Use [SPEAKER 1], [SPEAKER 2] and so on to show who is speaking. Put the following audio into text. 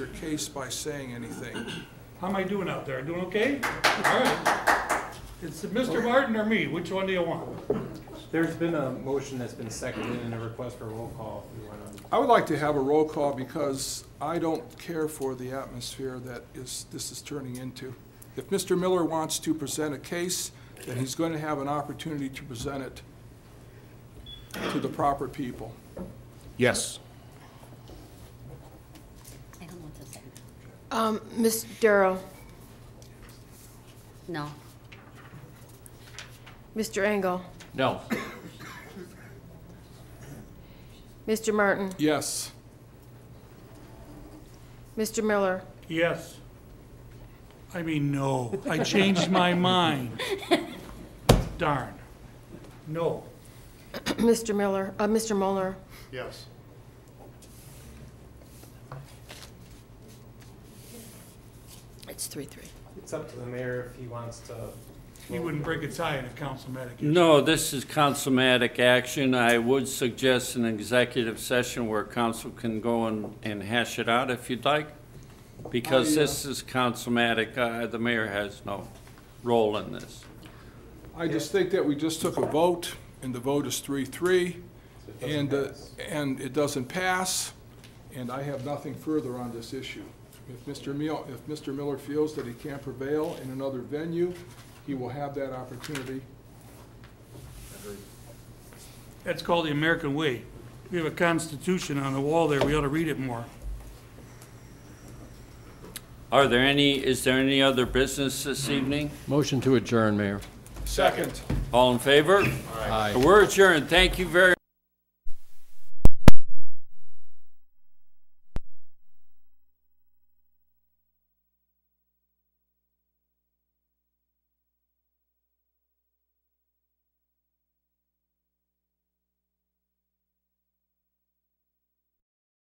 [SPEAKER 1] your case by saying anything.
[SPEAKER 2] How am I doing out there? Doing okay? All right. It's Mr. Martin or me? Which one do you want?
[SPEAKER 3] There's been a motion that's been seconded and a request for a roll call. if you wanna-
[SPEAKER 1] I would like to have a roll call because I don't care for the atmosphere that is, this is turning into. If Mr. Miller wants to present a case, then he's going to have an opportunity to present it to the proper people.
[SPEAKER 4] Yes.
[SPEAKER 5] I don't want to say
[SPEAKER 6] Um, Ms. Darrow,
[SPEAKER 5] no. No.
[SPEAKER 6] Mr. Engel,
[SPEAKER 4] No.
[SPEAKER 6] Mr. Martin,
[SPEAKER 1] Yes,
[SPEAKER 6] Mr. Miller,
[SPEAKER 2] Yes. I mean, no. I changed my mind. Darn. No.
[SPEAKER 6] Mr. Miller, uh, Mr. Mueller,
[SPEAKER 7] Yes.
[SPEAKER 6] It's three-three.
[SPEAKER 3] It's up to the mayor if he wants to.
[SPEAKER 2] He wouldn't break a tie in a council meeting.
[SPEAKER 8] No, this is councilmatic action. I would suggest an executive session where council can go and, and hash it out if you'd like, because this is councilmatic, uh, the mayor has no role in this.
[SPEAKER 1] I just think that we just took a vote, and the vote is three-three,
[SPEAKER 3] so it doesn't
[SPEAKER 1] and, uh,
[SPEAKER 3] pass.
[SPEAKER 1] and it doesn't pass, and I have nothing further on this issue. If Mr. Mil, if Mr. Miller feels that he can't prevail in another venue, he will have that opportunity.
[SPEAKER 2] That's called the American way. We have a constitution on the wall there. We ought to read it more.
[SPEAKER 8] Are there any, is there any other business this evening?
[SPEAKER 4] Motion to adjourn, Mayor.
[SPEAKER 1] Second.
[SPEAKER 8] All in favor?
[SPEAKER 4] Aye.
[SPEAKER 8] We're adjourned. Thank you very